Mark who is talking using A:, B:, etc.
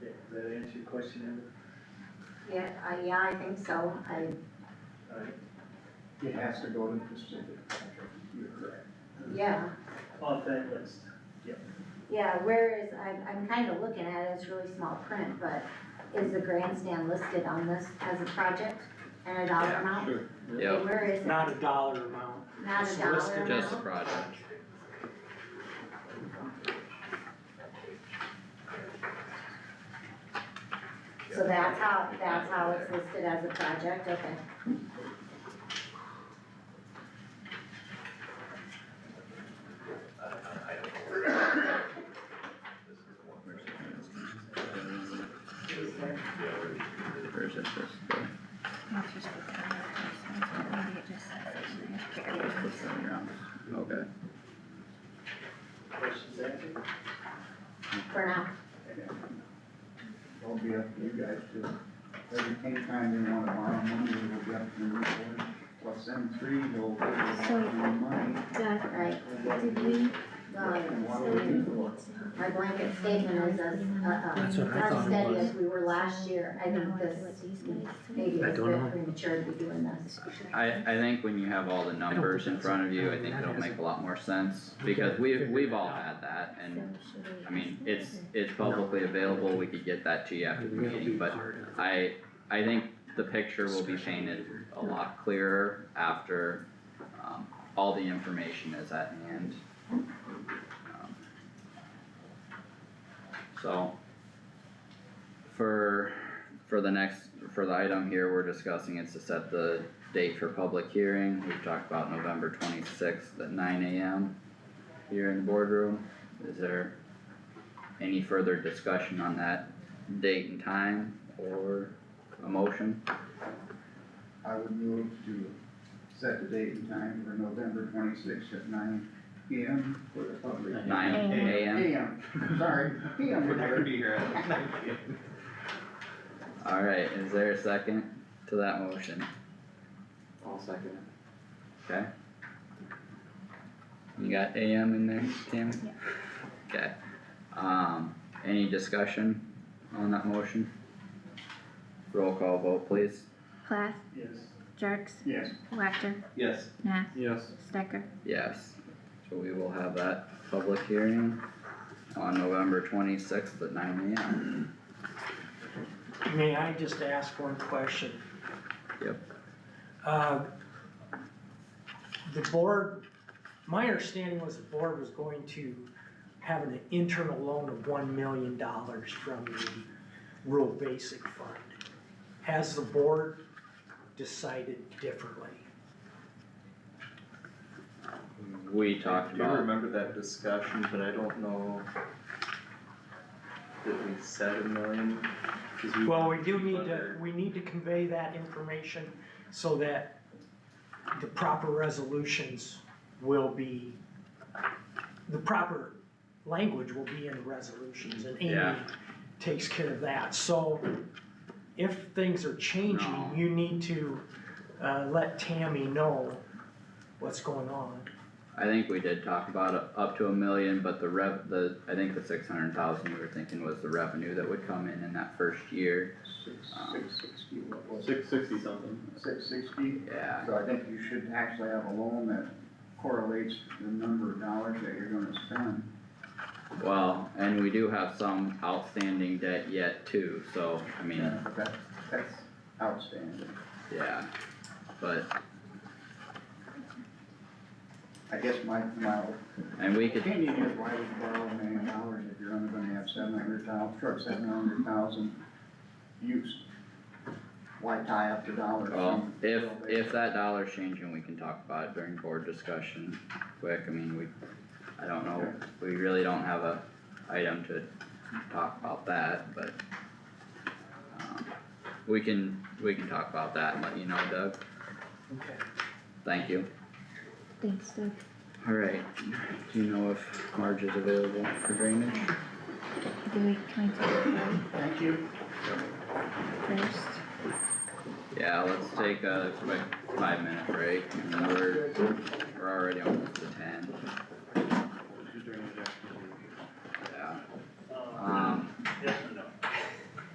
A: Does that answer your question, Amber?
B: Yeah, I, yeah, I think so, I,
A: Alright,
C: It has to go to the specific contract, you're correct.
B: yeah,
A: on that list.
B: yeah, where is, I'm, I'm kinda looking at it, it's really small print, but is the grandstand listed on this as a project and a dollar amount?
C: Sure.
D: Yep.
B: Where is it?
E: Not a dollar amount.
B: Not a
E: It's
B: dollar
E: listed
D: Just the
B: amount?
D: project.
B: So that's how, that's how it's listed as a project, okay.
D: Or is it just the,
F: It's just the time of person, so maybe it just says it in there.
D: just the playground? Okay.
A: Questions answered?
B: For now,
C: It'll be up to you guys to, every, anytime they wanna borrow money, it'll be up to you, plus them three, they'll,
F: So-
C: they'll borrow money.
F: Doug,
B: right,
F: did we,
C: And what do we do
B: um,
C: for it?
B: my blanket statement is as, uh, uh,
E: That's what I
B: as
E: thought it
B: steady
E: was.
B: as we were last year, I
F: now
B: think
F: I do
B: this,
F: what these guys
B: maybe
F: do?
E: I
B: it's a
E: don't know.
B: bit premature to be doing this.
D: I, I think when you have all the numbers in
E: that's-
D: front of
E: I
D: you, I
E: mean,
D: think
E: that
D: it'll
E: hasn't-
D: make a lot more sense,
E: We
D: because
E: gotta
D: we,
E: figure
D: we've
E: that
D: all
E: out.
D: had that,
F: So
D: and,
F: should we
D: I mean,
F: ask them
D: it's,
F: or-
D: it's publicly available, we could get that to you after the
E: It'll be
D: meeting, but
E: part of
D: I, I think the picture will be
E: discussion
D: painted
E: later.
D: a lot clearer after, um, all the information is at hand. Um, So, for, for the next, for the item here, we're discussing is to set the date for public hearing, we've talked about November twenty-sixth at nine AM here in the boardroom, is there any further discussion on that date and time or a motion?
C: I would move to set the date and time for November twenty-sixth at nine P M for the public.
D: Nine AM,
C: AM, sorry, PM.
G: We're not gonna be here at
D: alright, is there a second to that motion?
G: I'll second
D: Okay. You got AM in there, Tammy?
F: Yeah.
D: Okay, um, any discussion on that motion? Roll call vote please.
F: Plath,
A: Yes.
F: Jerks,
C: Yes,
F: Whacker,
G: Yes.
F: Nah,
G: Yes.
F: Stecker.
D: Yes, so we will have that public hearing on November twenty-sixth at nine AM.
E: May I just ask one question?
D: Yep.
E: Uh, The board, my understanding was the board was going to have an internal loan of one million dollars from the rural basic fund. Has the board decided differently?
D: We talked
G: I do
D: about,
G: remember that discussion, but I don't know. Did we seven million? 'Cause
E: Well, we do need to, we need to convey that information so that the proper resolutions will be, the proper language will be in the resolutions and Amy
D: Yeah.
E: takes care of that. So if things are changing,
D: No.
E: you need to, uh, let Tammy know what's going on.
D: I think we did talk about it up to a million, but the rev, the, I think the six hundred thousand we were thinking was the revenue that would come in in that first year.
C: six, six sixty, what was it?
G: Six sixty something.
C: Six sixty?
D: Yeah,
C: So I think you should actually have a loan that correlates the number of dollars that you're gonna spend.
D: well, and we do have some outstanding debt yet too, so, I mean,
C: That's, that's outstanding.
D: yeah, but,
C: I guess my, my
D: and we could,
C: opinion is why would you borrow a million dollars if you're only gonna have seven hundred thousand, sure, seven hundred thousand used? Why tie up the dollars?
D: well, if, if that dollar's changing, we can talk about it during board discussion quick, I mean, we, I don't know, we really don't have a item to talk about that, but. um, We can, we can talk about that and let you know, Doug,
E: Okay.
D: thank you.
F: Thanks, Doug.
D: Alright, do you know if Marge is available for drainage?
F: Do we, can we do
C: Thank you.
F: it first?
D: Yeah, let's take a quick five minute break, and we're, we're already almost to ten.
A: Um,
D: um,